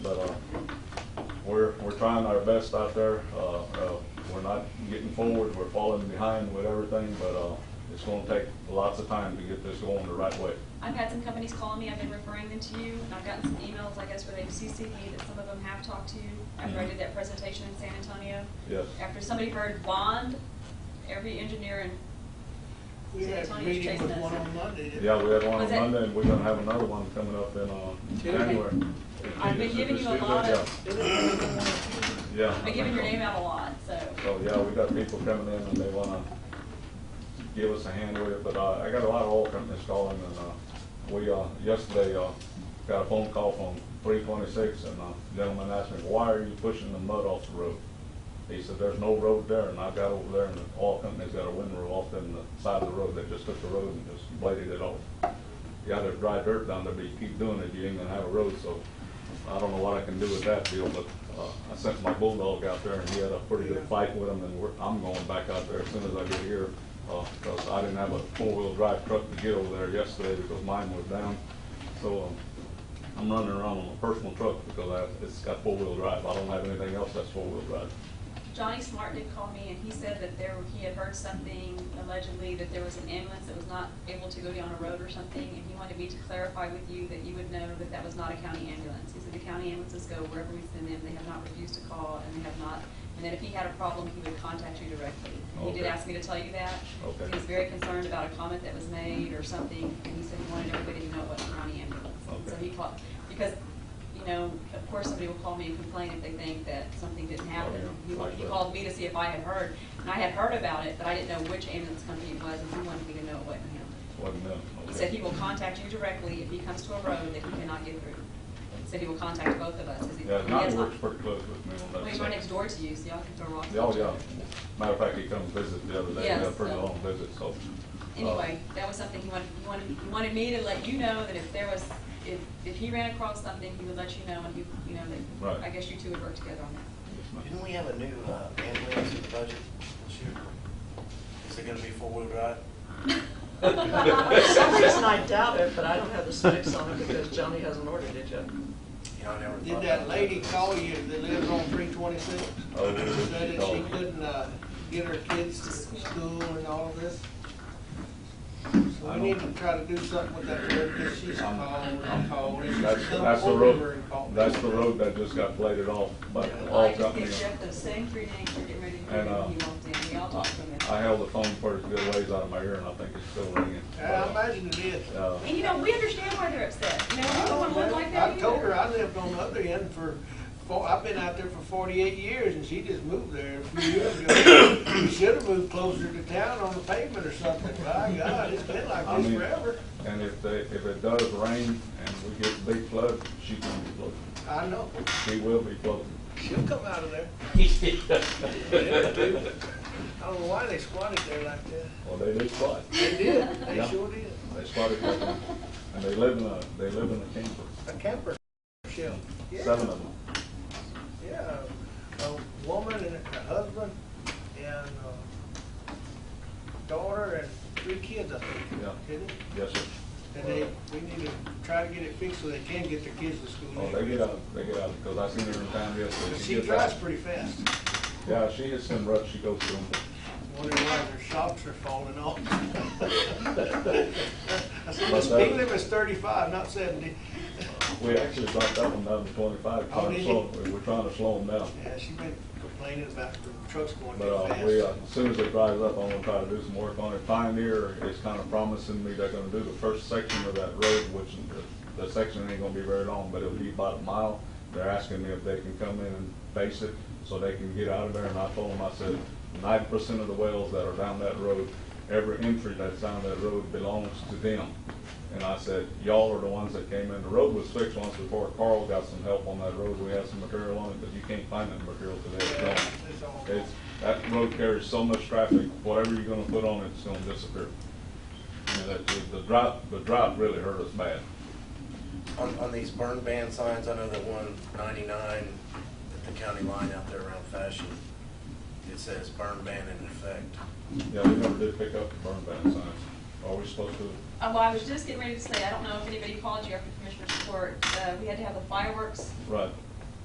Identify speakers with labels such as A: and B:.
A: uh, we're trying our best out there. Uh, uh, We're not getting forward, we're falling behind with everything, but uh, it's going to take lots of time to get this going the right way.
B: I've had some companies calling me, I've been referring them to you, and I've gotten some emails, I guess, where they've CC'd me that some of them have talked to you after I did that presentation in San Antonio.
A: Yes.
B: After somebody heard bond, every engineer in
C: We had a meeting with one on Monday. didn't we?
A: Yeah, we had one on
B: Was it-
A: Monday, and we're going to have another one coming up in uh, January.
B: I've been giving you a lot of-
C: Didn't we have one on Tuesday?
A: Yeah.
B: I've given your name out a lot, so.
A: So, yeah, we got people coming in and they wanna give us a hand with it, but, uh, I got a lot of oil companies calling and, uh, we, uh, yesterday, uh, got a phone call from three twenty-six and, uh, gentleman asked me, why are you pushing the mud off the road? He said, there's no road there, and I got over there and the oil company's got a windrow off in the side of the road, they just took the road and just bladed it off. You got there's dry dirt down there, but you keep doing it, you ain't gonna have a road, so I don't know what I can do with that deal, but, uh, I sent my bulldog out there and he had a pretty good fight with him and we're, I'm going back out there as soon as I get here. Uh, cause I didn't have a four-wheel drive truck to get over there yesterday because mine was down. So, um, I'm running around on a personal truck because I, it's got four-wheel drive. I don't have anything else that's four-wheel drive.
B: Johnny Smart did call me, and he said that there, he had heard something allegedly, that there was an ambulance that was not able to go down a road or something, and he wanted me to clarify with you that you would know that that was not a county ambulance. He said the county ambulances go wherever we send them, they have not refused to call, and they have not, and that if he had a problem, he would contact you directly. And He did
A: Okay.
B: ask me to tell you that.
A: Okay.
B: He was very concerned about a comment that was made or something, and he said he wanted everybody to know it wasn't a county ambulance. And So
A: Okay.
B: he called, because, you know, of course, somebody will call me and complain if they think that something didn't happen.
A: Oh,
B: He
A: yeah.
B: wa- he called me to see if I had heard, and I had heard about it, but I didn't know which ambulance company it was, and he wanted me to know it wasn't him.
A: Wasn't them.
B: He said he will contact you directly if he comes to a road that he cannot get through. He said he will contact both of us, 'cause he, he
A: Yeah,
B: has
A: Johnny
B: not-
A: works pretty close with me on that.
B: well, he's
A: stuff.
B: right next door to you, so y'all can throw rocks. at
A: Yeah, Oh,
B: each
A: yeah.
B: other.
A: Matter of fact, he come visit the other day. We had a
B: Yes,
A: pretty
B: so-
A: long visit, so. uh,
B: Anyway, that was something he wanted, he wanted, he wanted me to let you know that if there was, if, if he ran across something, he would let you know, and he, you know,
A: Right.
B: that, I guess you two would work together on that.
A: yes, ma'am.
D: Didn't we have a new uh, ambulance in the budget this year? Is it gonna be four-wheel drive?
E: For some reason, I doubt it, but I don't have the specs on it because Johnny hasn't ordered it yet.
D: You know, I never
C: Did
D: thought
C: that
D: about
C: lady call you that lives on three twenty-six?
A: Oh, yeah, she
C: Said that
A: called
C: she
A: me.
C: couldn't, uh, get her kids to school and all of this? So
A: I
C: we need to
A: don't-
C: try to do something with that road, because she's
A: I'm-
C: called and called, and
A: That's,
C: she's come
A: that's the
C: over and
A: road,
C: called.
A: that's the road that just got bladed off by the
B: Well, I
A: oil
B: just
A: company.
B: gave Jeff those same three names for getting ready to
A: And,
B: do
A: uh,
B: it, and he walked in, we all talked to him.
A: I held the phone for as good ways out of my ear, and I think it's still ringing.
C: Yeah, I imagine it is.
A: Uh,
B: And you know, we understand why they're upset, you know,
C: I
B: we don't
C: don't
B: want to live like
C: know.
B: that
C: I told her
B: either.
C: I lived on the other end for, four I've been out there for forty-eight years and she just moved there a few years ago. We should have moved closer to town on the pavement or something. My God, it's been
A: I
C: like this
A: mean,
C: forever.
A: And if they, if it does rain and we get big flood, she can be flooded.
C: I know.
A: She will be flooded.
C: She'll come out of there. I don't know why they squatted there like that.
A: Well, they did flood.
C: They did. They
A: Yeah.
C: sure did.
A: They started with them, and they live in a, they live in a camper,
C: A camper shell. Yeah.
A: seven of them.
C: Yeah, a woman and her husband and uh daughter and three kids, I think.
A: Yeah.
C: Didn't it?
A: Yes, sir.
C: And they, we need to try to get it fixed so they can get their kids to school.
A: Oh, they get out, they get out, because I seen her in town yesterday.
C: But she
A: gets
C: drives
A: out.
C: pretty fast.
A: Yeah, she hits some ruts, she goes through them.
C: Wonder why their shops are falling off. I said, the
A: But uh,
C: speed
A: that-
C: limit is thirty-five, not seventy.
A: We actually dropped that one down to twenty-five,
C: Oh,
A: trying to
C: did
A: slow, we're trying to slow them down.
C: Yeah, she's been complaining about the trucks going
A: But, uh,
C: too
A: we, uh,
C: fast.
A: as soon as it dries up, I'm gonna try to do some work on it. Pioneer is kinda promising me they're gonna do the first section of that road, which the, the section ain't gonna be very long, but it'll be about a mile. They're asking me if they can come in and face it, so they can get out of there, and I told them, I said, ninety percent of the wells that are down that road, every entry that's down that road belongs to them. And I said, y'all are the ones that came in. The road was fixed once before. Carl got some help on that road. We had some material on it, but you can't find that material today. It's
C: Yeah,
A: gone.
C: it's all
A: It's, that road carries so much traffic, whatever you're gonna put on it, it's gonna disappear. And that, the- the drought, the drought really hurt us bad.
D: it. On, on these burn ban signs, I know that one ninety-nine at the county line out there around Fashion, it says burn ban in effect.
A: Yeah, we never did pick up the burn ban signs. Are we supposed to?
B: Uh, Well, I was just getting ready to say, I don't know if anybody called you after Commissioner's report, uh, we had to have the fireworks
A: Right.